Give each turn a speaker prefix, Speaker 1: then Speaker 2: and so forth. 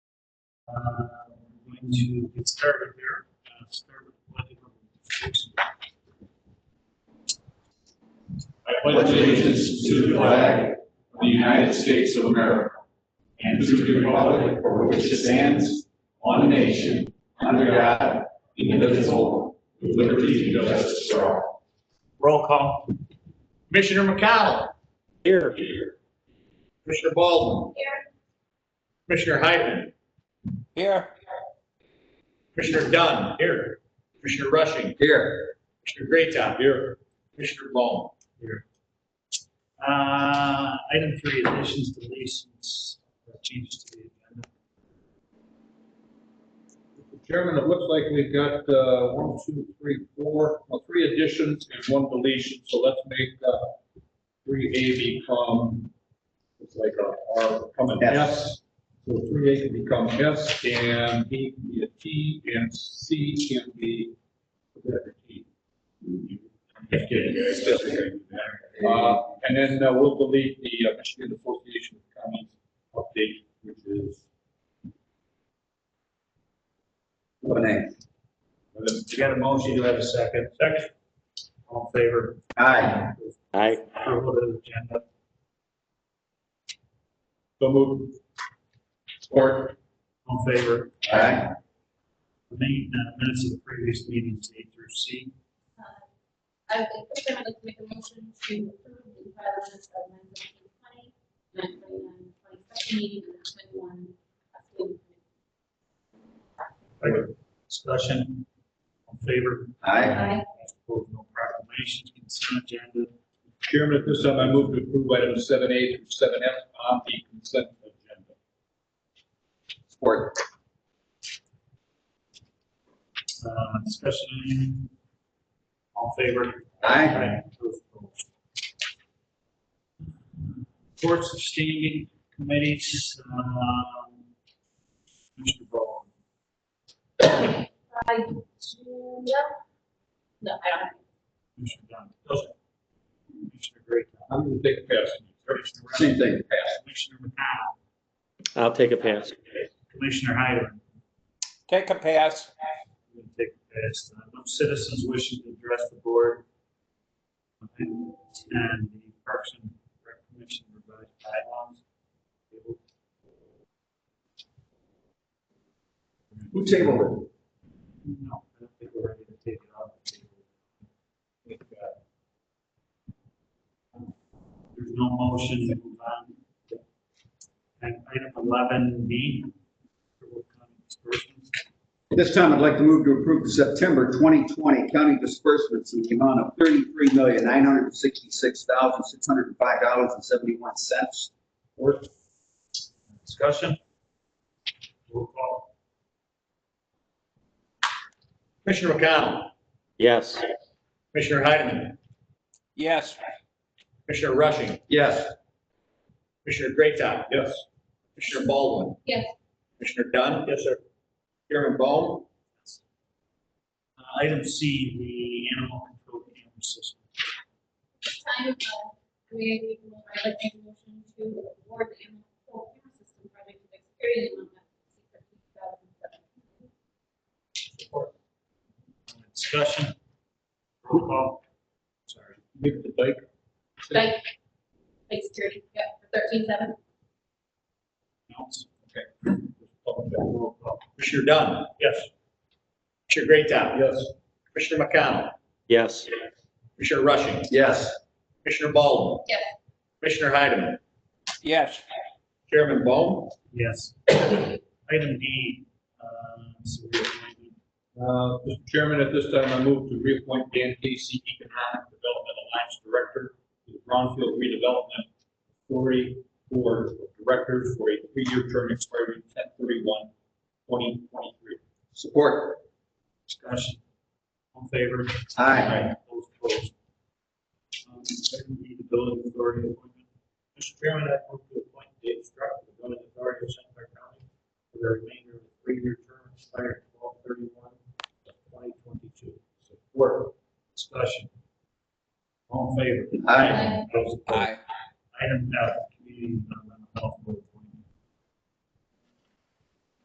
Speaker 1: Uh, Going to get started here. Uh, start with the pledge of allegiance.
Speaker 2: I pledge allegiance to the flag of the United States of America and to the republic for which it stands, one nation, under God, indivisible, with liberty and justice for all.
Speaker 1: Roll call. Commissioner McConnell. Here. Commissioner Baldwin.
Speaker 3: Here,
Speaker 1: Commissioner Hyden.
Speaker 4: Here.
Speaker 1: Commissioner Dunn. Here. Commissioner Rushing.
Speaker 4: Here.
Speaker 1: Commissioner Greatham. Here. Commissioner Bowman. Here. Uh, item three, additions, deletions, or changes to the agenda.
Speaker 5: Chairman, it looks like we've got uh, one, two, three, four, well, three additions and one deletion, so let's make uh, three A become, it's like a R become an S. So three A can become S, and B can be a T, and C can be a letter T. Uh, And then uh, we'll delete the uh, Michigan Association of Counties update, which is,
Speaker 1: You got a motion, you have a second. Second. All in favor?
Speaker 4: Aye. Aye.
Speaker 1: Approval of the agenda.
Speaker 5: so move. Or,
Speaker 1: All in favor?
Speaker 4: Aye.
Speaker 1: The main uh, minutes of the previous meetings, A through C.
Speaker 3: uh, I would, first I would like to make a motion to approve the file minutes of nine seventeen twenty, nine twenty-nine, twenty-second meeting, and twenty-one.
Speaker 1: Discussion. All in favor?
Speaker 4: Aye.
Speaker 3: Aye.
Speaker 1: Opposed, no proclamations, consent agenda.
Speaker 5: Chairman, at this time, I move to approve items seven A through seven F on the consent agenda.
Speaker 4: Support.
Speaker 1: Uh, Discussion, anything? All in favor?
Speaker 4: Aye.
Speaker 1: Opposed, no. Reports of standing committees. um, Mr. Ball.
Speaker 3: I do, no, no, I don't.
Speaker 1: Commissioner Dunn. Commissioner Gray.
Speaker 5: I'm going to take a pass.
Speaker 1: Commissioner Reynolds.
Speaker 4: Same thing.
Speaker 1: Commissioner McConnell.
Speaker 6: I'll take a pass.
Speaker 1: Commissioner Hyden.
Speaker 4: Take a pass.
Speaker 1: We'll take this. Uh, No citizens wishing to address the board. And the Parks and Rec Commission revised bylaws.
Speaker 4: Who tabled
Speaker 1: No, I don't think we're ready to take it off the table. I think, uh, There's no motion to move on. And item eleven B. Disbursements.
Speaker 4: At this time, I'd like to move to approve the September 2020 county disbursements in the amount of $33,966,605.71.
Speaker 1: Discussion? Roll call. Commissioner McConnell.
Speaker 6: Yes.
Speaker 1: Commissioner Heidemann.
Speaker 4: Yes.
Speaker 1: Commissioner Rushing.
Speaker 4: Yes.
Speaker 1: Commissioner Greatham.
Speaker 5: Yes.
Speaker 1: Commissioner Baldwin.
Speaker 3: Yes,
Speaker 1: Commissioner Dunn. Yes, sir. Chairman Bone. Uh, Item C, the animal control camera system.
Speaker 3: this time, uh, we, I'd like to make a motion to award the animal control camera system project to Xperi in the amount of fifteen thousand seven.
Speaker 1: Discussion? Roll call. Sorry.
Speaker 5: Give the bike.
Speaker 3: Like, like security, yeah, for thirteen seven.
Speaker 1: Announce. Okay. Roll call. Commissioner Dunn. Yes. Commissioner Greatham.
Speaker 5: Yes.
Speaker 1: Commissioner McConnell.
Speaker 6: Yes.
Speaker 1: Commissioner Rushing.
Speaker 4: Yes.
Speaker 1: Commissioner Baldwin.
Speaker 3: Yes.
Speaker 1: Commissioner Heidemann.
Speaker 4: Yes.
Speaker 1: Chairman Bone. Yes. Item D. um, so we're going to-
Speaker 5: Uh, Mr. Chairman, at this time, I move to reappoint Dan Casey, Economic Development Alliance Director, to the Brownfield Redevelopment Authority Board of Directors for a three-year term expiring 2023.
Speaker 4: Support.
Speaker 1: Discussion. All in favor?
Speaker 4: Aye.
Speaker 1: Those opposed? Um, Item D, the building authority appointment. Mr. Chairman, I move to appoint Dave Struck to the building authority of St. Clair County for the remainder of the three-year term expired twelve thirty-one of twenty twenty-two. Support. Discussion. All in favor?
Speaker 4: Aye.
Speaker 3: Aye.
Speaker 1: Those opposed? Item F,